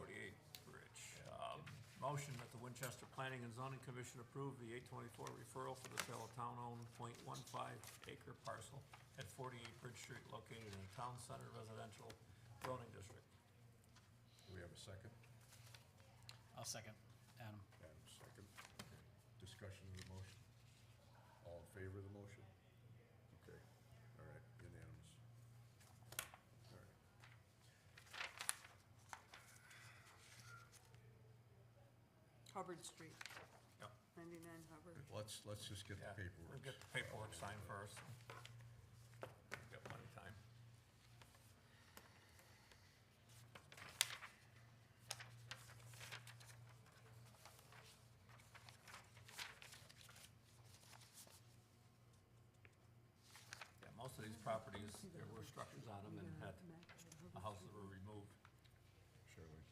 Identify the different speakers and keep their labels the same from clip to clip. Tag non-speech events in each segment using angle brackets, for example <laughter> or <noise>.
Speaker 1: Um, motion that the Winchester Planning and Zoning Commission approve the eight twenty-four referral for the sale of town-owned 0.15 acre parcel at forty-eight Bridge Street located in the Town Center Residential Zoning District.
Speaker 2: Do we have a second?
Speaker 3: I'll second, Adam.
Speaker 2: Adam, second. Okay. Discussion of the motion? All in favor of the motion? Okay, all right, unanimous. All right.
Speaker 4: Hubbard Street,
Speaker 1: Yep.
Speaker 4: ninety-nine Hubbard.
Speaker 2: Let's, let's just get the
Speaker 1: Yeah,
Speaker 2: paperwork.
Speaker 1: We'll get the paperwork signed first. We've got plenty of time. Yeah, most of these properties, there were structures on them and had uh, houses were removed.
Speaker 2: Shirley.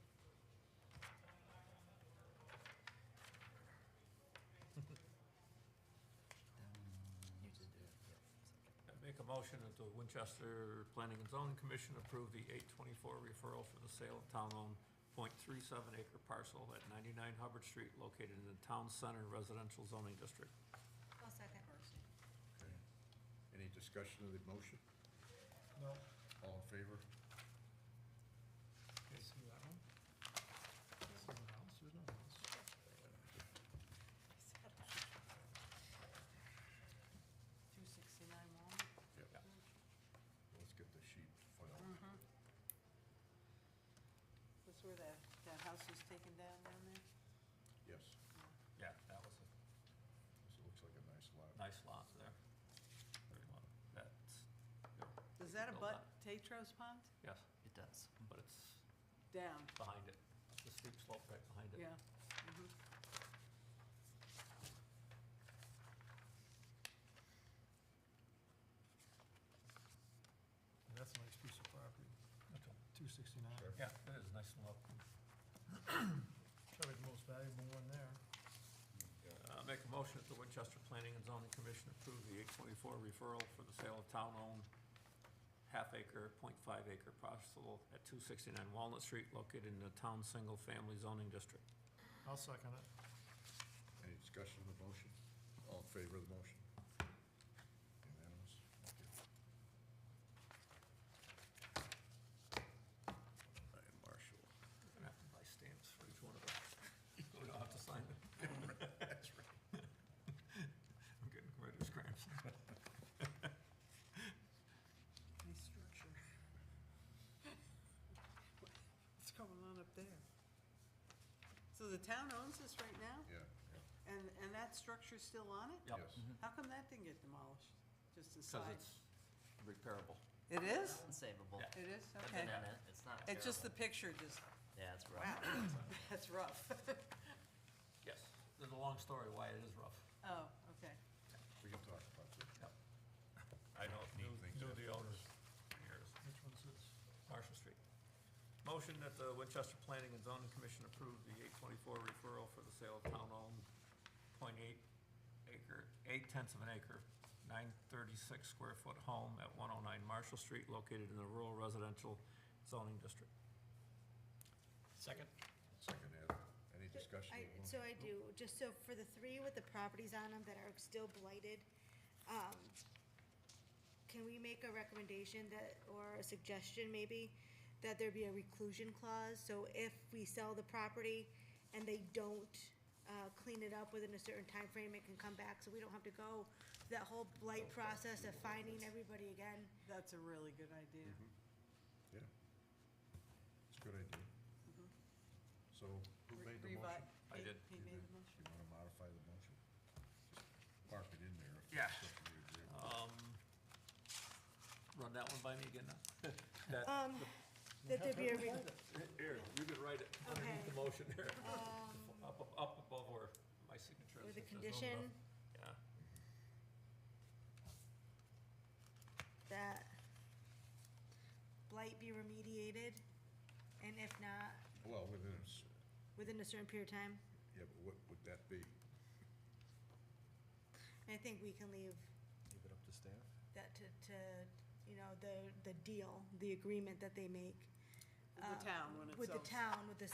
Speaker 1: I Make a motion that the Winchester Planning and Zoning Commission approve the eight twenty-four referral for the sale of town-owned 0.37 acre parcel at ninety-nine Hubbard Street located in the Town Center Residential Zoning District.
Speaker 5: I'll second.
Speaker 2: Okay. Any discussion of the motion?
Speaker 6: No.
Speaker 2: All in favor?
Speaker 6: See that one? There's no house, there's no house.
Speaker 4: Two sixty-nine Walnut.
Speaker 2: Yep. Let's get the sheet filed.
Speaker 4: Mm-hmm. That's where that, that house was taken down down there?
Speaker 2: Yes,
Speaker 1: Yeah, that was a
Speaker 2: this looks like a nice lot.
Speaker 1: nice lot there. Very lot. That's,
Speaker 4: Does that
Speaker 1: Build
Speaker 4: abut Tetros Pond?
Speaker 1: yes,
Speaker 3: It does.
Speaker 1: but it's
Speaker 4: Down,
Speaker 1: behind it, the steep slope right behind it.
Speaker 4: yeah. mhm.
Speaker 6: Yeah, That's a nice piece of property, two sixty-nine.
Speaker 2: Sure.
Speaker 1: Yeah, it is nice and low.
Speaker 6: Probably the most valuable one there.
Speaker 1: Uh, make a motion that the Winchester Planning and Zoning Commission approve the eight twenty-four referral for the sale of town-owned half acre, point five acre parcel at two sixty-nine Walnut Street located in the town single family zoning district.
Speaker 6: I'll second it.
Speaker 2: Any discussion of the motion? All in favor of the motion? Unanimous? Okay. Ryan Marshall.
Speaker 1: We're gonna have to buy stamps for each one of us. <laughs> We don't have to sign them.
Speaker 2: <laughs> That's right.
Speaker 1: <laughs> I'm getting writer's cramps.
Speaker 4: Nice structure. <laughs> What's going on up there? So the town owns this right now,
Speaker 2: Yeah, yeah,
Speaker 4: and, and that structure's still on it?
Speaker 1: Yep.
Speaker 2: yes.
Speaker 7: Mm-hmm.
Speaker 4: How come that didn't get demolished, just
Speaker 1: Cause
Speaker 4: aside?
Speaker 1: it's repairable.
Speaker 4: It is?
Speaker 8: unsavable.
Speaker 1: Yeah.
Speaker 4: It is,
Speaker 8: I've
Speaker 4: okay.
Speaker 8: been in it. It's not
Speaker 4: It's just the
Speaker 8: terrible.
Speaker 4: picture, just,
Speaker 8: Yeah, it's rough.
Speaker 4: wow, <laughs> that's rough.
Speaker 1: Yes, there's a long story why it is rough.
Speaker 4: Oh, okay.
Speaker 2: We can talk about that.
Speaker 1: Yep. I know,
Speaker 2: Neat
Speaker 1: knew,
Speaker 2: things
Speaker 1: knew
Speaker 2: happen.
Speaker 1: the owners for years.
Speaker 6: Which one's this?
Speaker 1: Marshall Street. Motion that the Winchester Planning and Zoning Commission approve the eight twenty-four referral for the sale of town-owned point eight acre, eight tenths of an acre, nine thirty-six square foot home at one oh nine Marshall Street located in the rural residential zoning district.
Speaker 3: Second?
Speaker 2: Second, Ed, any discussion?
Speaker 5: I,
Speaker 2: of the motion?
Speaker 5: so I do, just so for the three with the properties on them that are still blighted, um, can we make a recommendation that, or a suggestion maybe, that there be a reclusion clause? So if we sell the property and they don't, uh, clean it up within a certain time frame, it can come back, so we don't have to go through that whole blight process of finding everybody again.
Speaker 4: That's a really good idea.
Speaker 2: Yeah. It's a good idea. So who
Speaker 4: Mm-hmm. Re-
Speaker 2: made the
Speaker 4: revi-
Speaker 2: motion?
Speaker 1: I
Speaker 4: he-
Speaker 1: did.
Speaker 2: You
Speaker 4: He
Speaker 2: did.
Speaker 4: made the motion.
Speaker 2: You wanna modify the motion? Park it in there. if it's
Speaker 1: Yeah.
Speaker 2: something you agree with.
Speaker 1: Um, run that one by me again now. That,
Speaker 5: Um, that there be
Speaker 1: <laughs>
Speaker 5: a, re- um,
Speaker 1: here, you can write it underneath the
Speaker 5: Okay.
Speaker 1: motion there. Up, up- up above where my signature is.
Speaker 5: with a
Speaker 1: if there's no enough.
Speaker 5: condition
Speaker 1: Yeah.
Speaker 5: that blight be remediated, and if not,
Speaker 2: Well, within, a s-
Speaker 5: within a certain period of time.
Speaker 2: yeah, but what would that be?
Speaker 5: I think we can leave
Speaker 7: Leave it up to staff?
Speaker 5: that to, to, you know, the, the deal, the agreement that they make.
Speaker 4: With the
Speaker 5: uh,
Speaker 4: town when it's
Speaker 5: With the
Speaker 4: over.
Speaker 5: town, with the